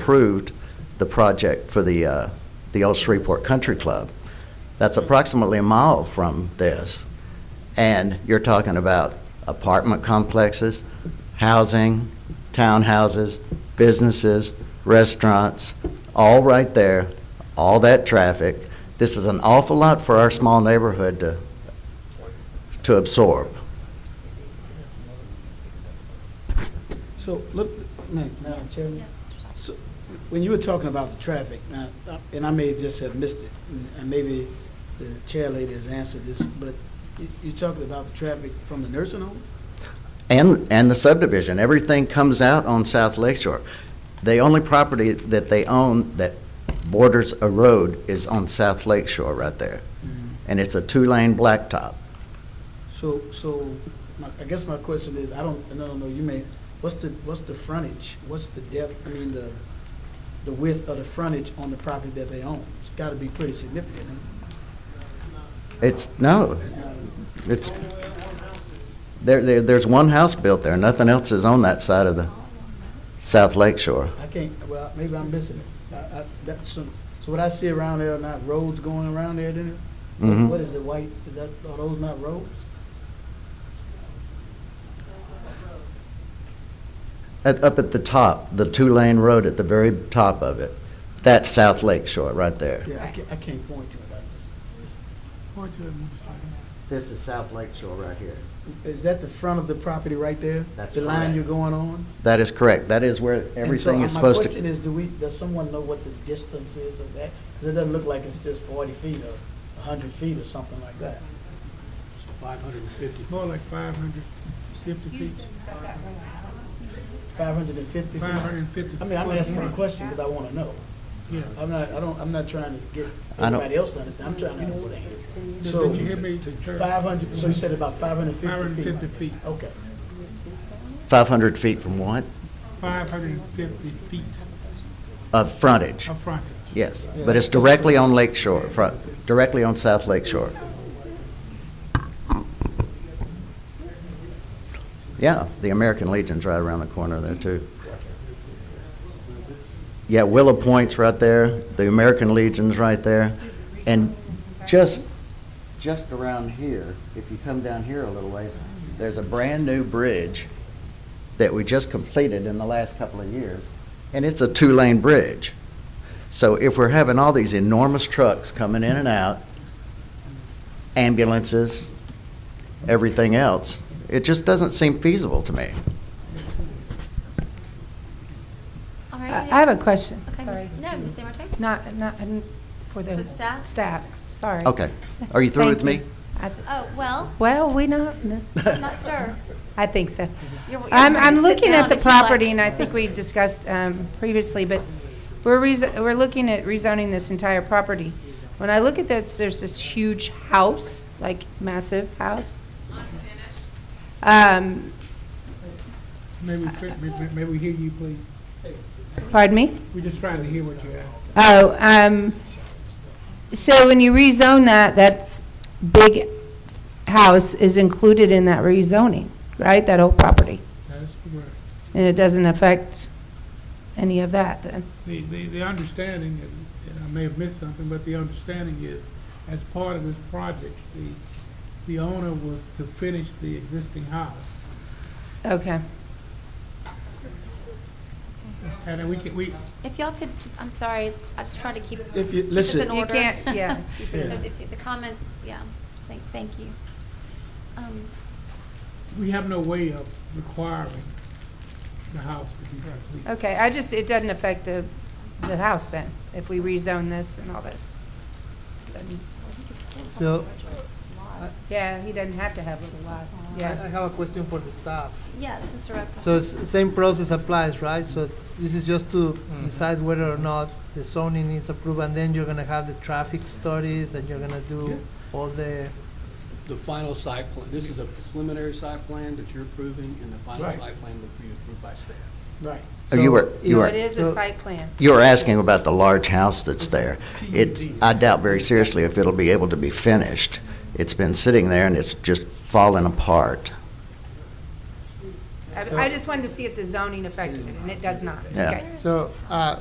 approved the project for the, uh, the Old Shreveport Country Club. That's approximately a mile from this. And you're talking about apartment complexes, housing, townhouses, businesses, restaurants, all right there, all that traffic. This is an awful lot for our small neighborhood to, to absorb. So, let, ma- Madam Chairman, so, when you were talking about the traffic, now, uh, and I may just have missed it, and- and maybe the chair lady has answered this, but you, you talking about the traffic from the nursing home? And, and the subdivision, everything comes out on South Lakeshore. The only property that they own that borders a road is on South Lakeshore right there. And it's a two-lane blacktop. So, so, my- I guess my question is, I don't, and I don't know, you may, what's the, what's the frontage? What's the depth, I mean, the, the width of the frontage on the property that they own? It's gotta be pretty significant. It's, no, It's not a- it's, there, there, there's one house built there, nothing else is on that side of the South Lakeshore. I can't, well, maybe I'm missing it. I, I, that's, so what I see around there are not roads going around there, then? Mhm. What is it, white, is that, are those not roads? At, up at the top, the two-lane road at the very top of it, that's South Lakeshore right there. Yeah, I can't, I can't point to it like this. This is South Lakeshore right here. Is that the front of the property right there? That's The line correct. you're going on? That is correct, that is where And so, everything uh, is supposed My to. question is, do we, does someone know what the distance is of that? Because it doesn't look like it's just forty feet or a hundred feet or something like that. Five hundred and fifty. More like five hundred fifty feet, Five hundred and fifty feet? five hundred and fifty. I mean, I'm asking a question because I want to know. Yeah. I'm not, I don't, I'm not trying to get I don't- anybody else to understand, I'm trying to understand. Did So, did you hear me to church? five hundred, so you said about five hundred Five hundred and and fifty fifty feet? feet, Okay, 500 feet from what? five hundred and fifty feet Of frontage, of frontage. yes. But it's directly on Lake Shore, front, directly on South Lake Shore. Yeah, the American Legion's right around the corner there, too. Yeah, Willow Point's right there, the American Legion's right there. And just, just around here, if you come down here a little ways, there's a brand-new bridge that we just completed in the last couple of years, and it's a two-lane bridge. So if we're having all these enormous trucks coming in and out, ambulances, everything else, it just doesn't seem feasible to me. All I right. I have a question. Okay, Sorry. Ms. No, Ms. Samarte? Not, not, n- for the. For the staff? Staff, sorry. Okay, are you through with Thank me? you. I- Oh, well, Well, we not, n- I'm not sure. I think so. You're- you're I'm, free to I'm sit looking down at the if you'd like. property, and I think we discussed um, previously, but we're, rezo- we're looking at rezoning this entire property. When I look at this, there's this huge house, like massive house. Um, May we, fi- may- may- may we hear you, please? Pardon me? We're just trying to hear what you're asking. Oh, um, so when you rezone that, that's big house is included in that rezoning, right? That whole property? That is correct. And it doesn't affect any of that then? The, the, the understanding, and- and I may have missed something, but the understanding is, as part of this project, the, the owner was to finish the existing house. Okay. And then we can, we, If y'all could just, I'm sorry, it's- I just try to keep. If you- this listen. in You order. can't- yeah. So if the comments, yeah, thank, thank you. Um, we have no way of requiring the house to be complete. Okay, I just, it doesn't affect the, the house then, if we rezone this and all this. Doesn't- So, Yeah, he doesn't have to have little lots, I I yeah. have a question for the staff. Yes, Mr. Rocco. So, s- same process applies, right? So, this is just to decide whether or not the zoning is approved, and then you're gonna have the traffic studies, and you're gonna do all the, The final site plan, this is a preliminary site plan that you're approving, and the final Right. site plan that we approved by staff. right. Oh, You were, you So it were, is a So- site plan. you were asking about the large house that's there. It's, I doubt very seriously if it'll be able to be finished. It's been sitting there and it's just falling apart. I I just wanted to see if the zoning affected it, and it does not. Yeah. Okay. So, uh,